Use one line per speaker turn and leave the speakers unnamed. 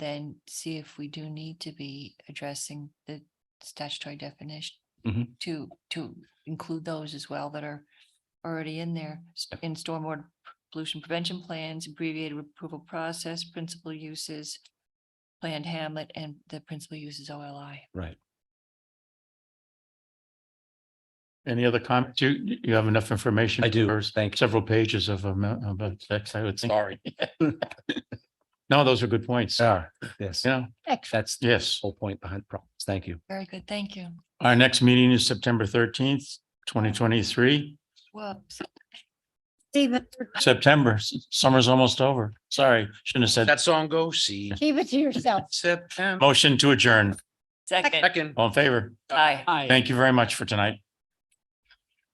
then see if we do need to be addressing the statutory definition.
Mhm.
To, to include those as well that are already in there, s-
Yep.
in stormwater pollution prevention plans, abbreviated approval process, principal uses. Planned hamlet and the principal uses OLI.
Right.
Any other comments? You, you have enough information.
I do.
for
Thank you.
Several pages of, um, about text, I would think.
Sorry.
No, those are good points.
Ah, yes,
Yeah,
that's the
yes.
whole point behind problems. Thank you.
Very good, thank you.
Our next meeting is September thirteenth, twenty twenty-three.
Well,
Stephen,
September, s- summer's almost over. Sorry, shouldn't have said.
That song goes, see
keep it to yourself.
September
Motion to adjourn.
second,
second.
All in favor?
aye.
Thank you very much for tonight.